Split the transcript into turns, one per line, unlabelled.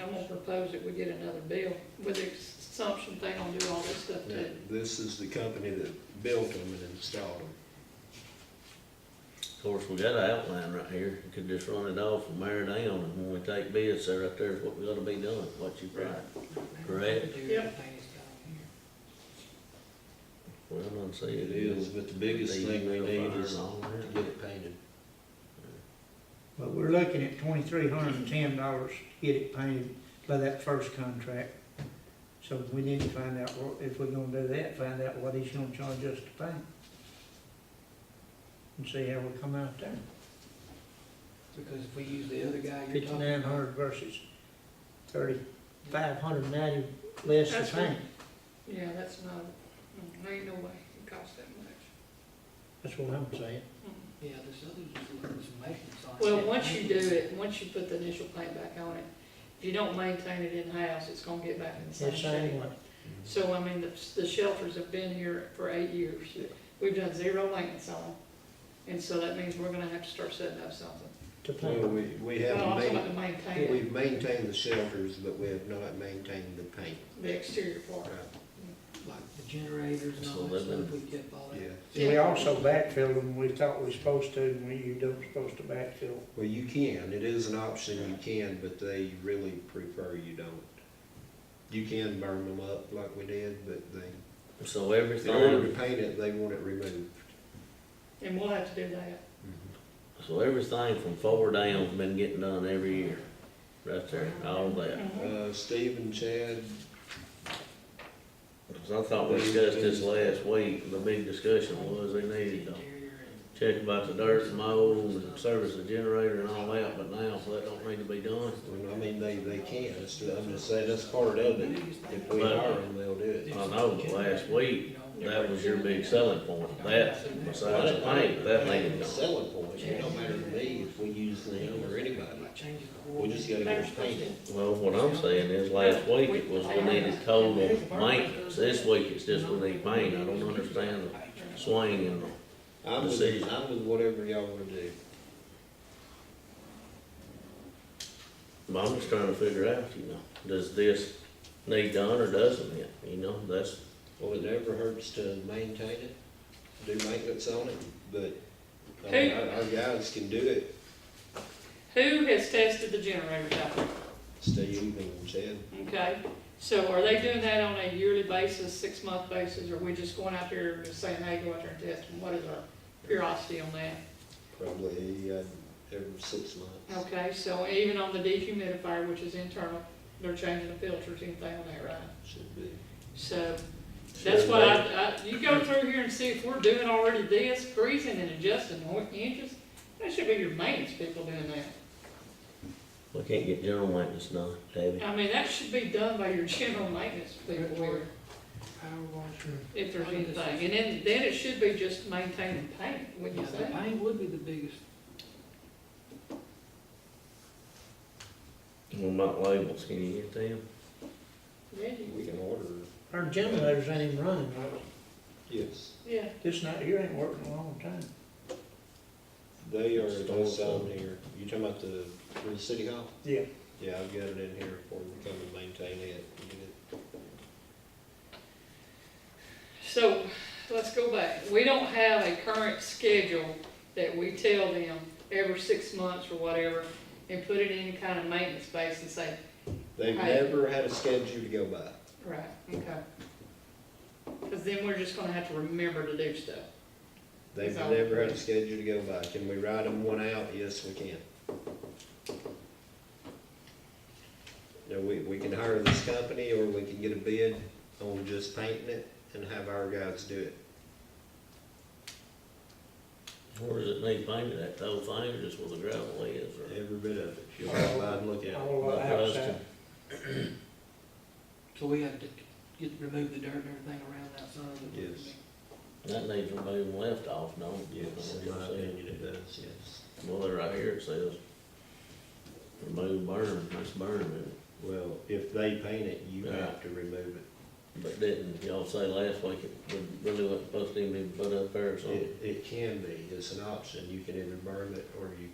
I won't propose that we get another bill, with the assumption they don't do all this stuff
Now,
too.
This is the company that built them and installed them.
Of course, we got an outline right here, you could just run it off and marry it down, and when we take bids, there right there is what we gotta be doing, what you write. Correct.
Yep.
Well, I'm gonna say
It
it
is,
is.
but the biggest
These
thing we
real
need
fire
is
and all
to
that.
get it painted.
But we're looking at twenty-three hundred and ten dollars to get it painted by that first contract. So we need to find out, what- if we're gonna do that, find out what he's gonna charge us to paint. And see how we come out there.
Because if we use the other guy you're talking
Fifty-nine
about,
hundred versus thirty-five hundred ninety less
That's
to
right.
paint.
Yeah, that's not, mm, there ain't no way it costs that much.
That's what I'm saying.
Mm.
yeah, this other just looks maintenance on it.
Well, once you do it, once you put the initial paint back on it, if you don't maintain it in-house, it's gonna get back in the same
It's
shape.
same,
So, I mean, the, the shelters have been here for eight years. We've done zero maintenance on them. And so that means we're gonna have to start setting up something.
to
Well,
paint.
we, we
But
haven't
also
made,
about to maintain it,
we've maintained the shelters, but we have not maintained the paint.
the exterior part.
Like the generators and all
So
that
then-
stuff, we kept all
Yeah,
that.
And we also backfilled them, we thought we were supposed to, and we, you don't supposed to backfill.
well, you can, it is an option, you can, but they really prefer you don't. You can burn them up like we did, but they,
So
in order
everything,
to paint it, they want it removed.
And we'll have to do that.
so everything from four down's been getting done every year, right there, all that.
Mm-hmm.
Uh, Steve and Chad,
'Cause I thought we discussed this last week, the big discussion was they needed to
Interior and-
check about the dirt and mold and service the generator and all that, but now, so that don't need to be done.
well, I mean, they, they can, it's, I'm just saying, that's part of it. If we hire them, they'll do it.
I know, but last week, That was your big selling point, that, besides the paint, that needed done.
Selling point, it don't matter to me if we use them or anybody,
Like changing the
we just gotta get it painted.
Well, what I'm saying is, last week it was we needed total maintenance, this week it's just we need paint, I don't understand the swing and the,
I'm with, I'm with whatever y'all wanna do.
but I'm just trying to figure out, you know, does this need done or doesn't it, you know, that's,
Well, it never hurts to maintain it, do maintenance on it, but, I mean,
Hey.
our, our guys can do it,
Who has tested the generators out there?
Steve and Chad.
Okay, so are they doing that on a yearly basis, six-month basis, or we just going out there and just saying, hey, go out there and test them? What is our curiosity on that?
Probably, uh, every six months.
Okay, so even on the dehumidifier, which is internal, they're changing the filters, anything on that, right?
Should be.
So that's what I, I, you go through here and see if we're doing already this, greasing and adjusting more inches. That should be your maintenance people doing that.
we can't get general maintenance done, David.
I mean, that should be done by your general maintenance people here.
Power washer.
If there's anything, and then, then it should be just maintaining paint,
Yeah,
wouldn't you
the
think?
paint would be the biggest,
What about labels, can you get them?
Yeah, you-
We can order,
Our generators ain't even running, right?
yes,
Yeah,
This night here ain't working a long time.
they are, it's on here, you talking about the, for the city hall?
Yeah.
Yeah, I've got it in here for them to come and maintain it, and get it
so, let's go back. We don't have a current schedule that we tell them every six months or whatever and put it in kind of maintenance base and say,
They've
Right.
never had a schedule to go by.
right, okay. Cause then we're just gonna have to remember to do stuff.
They've
So-
never had a schedule to go by. Can we write them one out? Yes, we can. Now, we, we can hire this company, or we can get a bid on just painting it and have our guys do it.
Or does it need painted, that whole thing, or just where the gravel is, or?
Every bit of it. You'll have to and look at it.
All
Like us
outside.
so we have to get, remove the dirt and everything around outside of it.
Yes.
to- That needs removing left off, no?
Yes, in my opinion, it does, yes.
Well, they're right here, it says, remove berm, that's berm, and-
Well, if they paint it, you
Yeah.
have to remove it.
but didn't, y'all say last week it would- really wasn't supposed to even be put up there or something?
It, it can be. It's an option. You can either burn it, or you